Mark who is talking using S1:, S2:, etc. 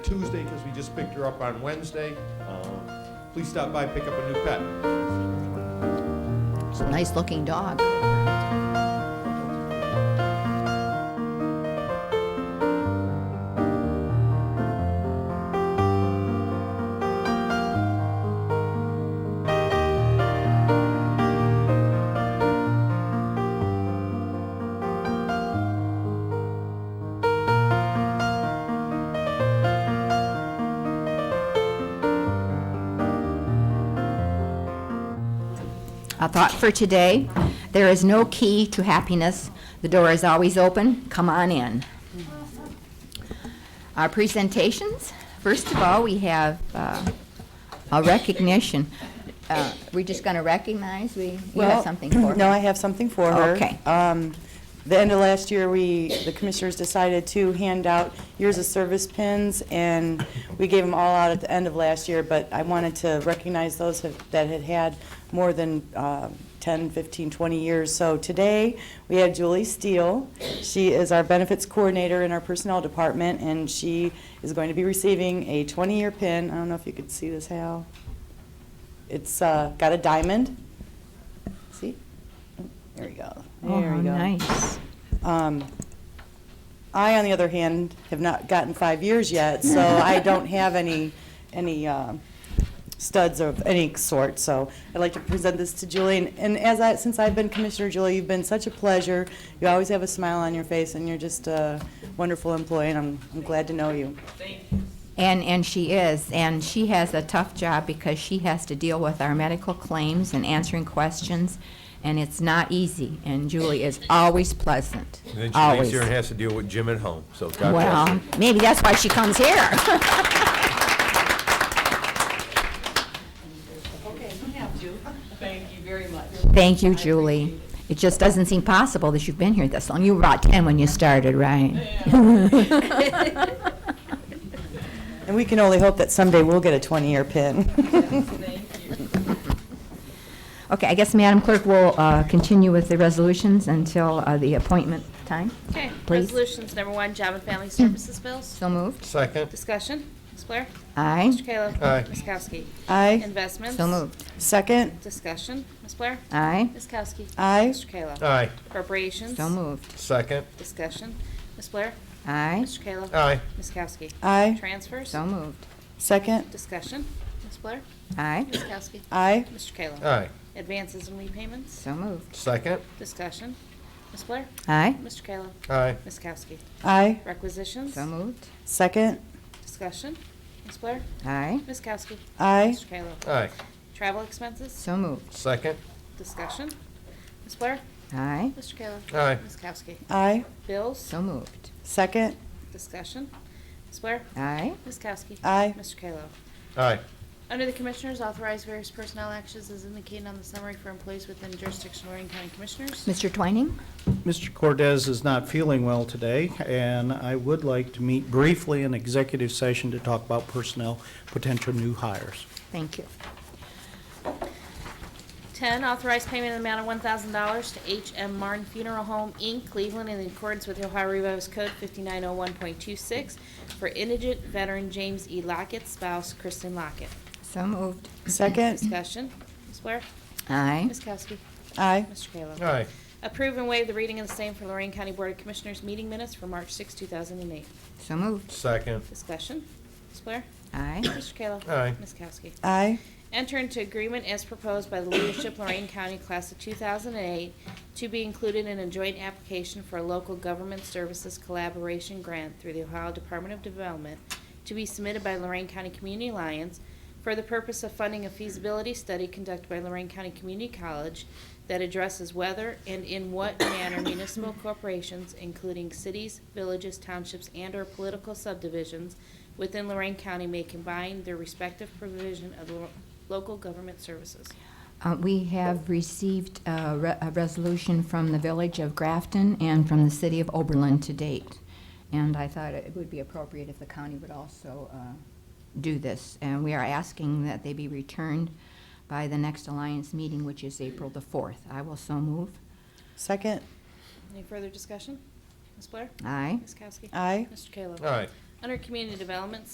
S1: Tuesday because we just picked her up on Wednesday. Um, Please stop by, pick up a new pet.
S2: It's a nice looking dog. A thought for today, there is no key to happiness. The door is always open. Come on in. Our presentations, first of all, we have uh, a recognition. Uh, We're just going to recognize, we, you have
S3: Well,
S2: something for
S3: No,
S2: us.
S3: I have something for her.
S2: Okay.
S3: Um, The end of last year, we, the commissioners decided to hand out years of service pins, and we gave them all out at the end of last year, but I wanted to recognize those have- that had had more than uh, 10, 15, 20 years. So today, we had Julie Steele. She is our benefits coordinator in our personnel department, and she is going to be receiving a 20-year pin. I don't know if you could see this, Hal. It's uh, got a diamond. See? There we go.
S2: Oh,
S3: There
S2: how
S3: we go.
S2: nice.
S3: Um, I, on the other hand, have not gotten five years yet, so I don't have any, any uh, studs of any sort, so I'd like to present this to Julie. And- And as I, since I've been Commissioner, Julie, you've been such a pleasure. You always have a smile on your face, and you're just a wonderful employee, and I'm, I'm glad to know you.
S2: And, and she is, and she has a tough job because she has to deal with our medical claims and answering questions, and it's not easy, and Julie is always pleasant,
S1: And then she leaves
S2: always.
S1: here and has to deal with Jim at home, so God bless her.
S2: Well, maybe that's why she comes here.
S4: Okay, we have to. Thank you very much.
S2: Thank you, Julie. It just doesn't seem possible that you've been here this long. You were about 10 when you started, right?
S3: And we can only hope that someday we'll get a 20-year pin.
S2: Okay, I guess Madam Clerk will uh, continue with the resolutions until uh, the appointment time.
S5: Okay,
S2: Please.
S5: resolutions, number one, job and family services bills.
S2: So moved.
S1: Second,
S5: Discussion, Ms. Blair?
S2: Aye.
S5: Mr. Kayla?
S1: Aye.
S5: Ms. Kowski?
S3: Aye.
S5: Investments?
S2: So moved.
S3: Second.
S5: Discussion, Ms. Blair?
S2: Aye.
S5: Ms. Kowski?
S3: Aye.
S5: Mr. Kayla?
S1: aye.
S5: Appropriations?
S2: So moved.
S1: Second,
S5: Discussion, Ms. Blair?
S2: Aye.
S5: Mr. Kayla?
S1: aye.
S5: Ms. Kowski?
S3: Aye.
S5: Transfers?
S2: So moved.
S3: Second.
S5: Discussion, Ms. Blair?
S2: Aye.
S5: Ms. Kowski?
S3: Aye.
S5: Mr. Kayla?
S1: Aye.
S5: Advances and repayments?
S2: So moved.
S1: Second,
S5: Discussion, Ms. Blair?
S2: Aye.
S5: Mr. Kayla?
S1: aye.
S5: Ms. Kowski?
S3: Aye.
S5: Requisitions?
S2: So moved.
S3: Second.
S5: Discussion, Ms. Blair?
S2: Aye.
S5: Ms. Kowski?
S3: Aye.
S5: Mr. Kayla?
S1: Aye.
S5: Travel expenses?
S2: So moved.
S1: Second,
S5: Discussion. Ms. Blair?
S2: Aye.
S5: Mr. Kayla?
S1: Aye.
S5: Ms. Kowski?
S3: Aye.
S5: Bills?
S2: So moved.
S3: Second.
S5: Discussion. Ms. Blair?
S2: Aye.
S5: Ms. Kowski?
S3: Aye.
S5: Mr. Kayla?
S1: aye.
S5: Under the Commissioners, authorize various personnel actions as indicated on the summary for employees within jurisdiction of Lorraine County Commissioners.
S2: Mr. Twining?
S6: Mr. Cordez is not feeling well today, and I would like to meet briefly in executive session to talk about personnel, potential new hires.
S2: Thank you.
S5: 10, authorize payment in the amount of $1,000 to H.M. Martin Funeral Home, Inc., Cleveland, in accordance with the Ohio Revised Code 5901.26 for indigent veteran James E. Lockett, spouse Kristen Lockett.
S2: So moved.
S3: Second.
S5: Discussion. Ms. Blair?
S2: Aye.
S5: Ms. Kowski?
S3: Aye.
S5: Mr. Kayla?
S1: Aye.
S5: Approve and waive the reading of the same for Lorraine County Board of Commissioners meeting minutes for March 6, 2008.
S2: So moved.
S1: Second,
S5: Discussion. Ms. Blair?
S2: Aye.
S5: Mr. Kayla?
S1: Aye.
S5: Ms. Kowski?
S3: Aye.
S5: Enter into agreement as proposed by the leadership Lorraine County Class of 2008 to be included in a joint application for a local government services collaboration grant through the Ohio Department of Development to be submitted by Lorraine County Community Alliance for the purpose of funding a feasibility study conducted by Lorraine County Community College that addresses whether and in what manner municipal corporations, including cities, villages, townships, and/or political subdivisions within Lorraine County may combine their respective provision of lo- local government services.
S2: Uh, We have received a re- a resolution from the Village of Grafton and from the City of Oberlin to date. And I thought it would be appropriate if the county would also uh, do this. And we are asking that they be returned by the next Alliance meeting, which is April the 4th. I will so move.
S3: Second.
S5: Any further discussion? Ms. Blair?
S2: Aye.
S5: Ms. Kowski?
S3: Aye.
S5: Mr. Kayla?
S1: aye.
S5: Under Community Development,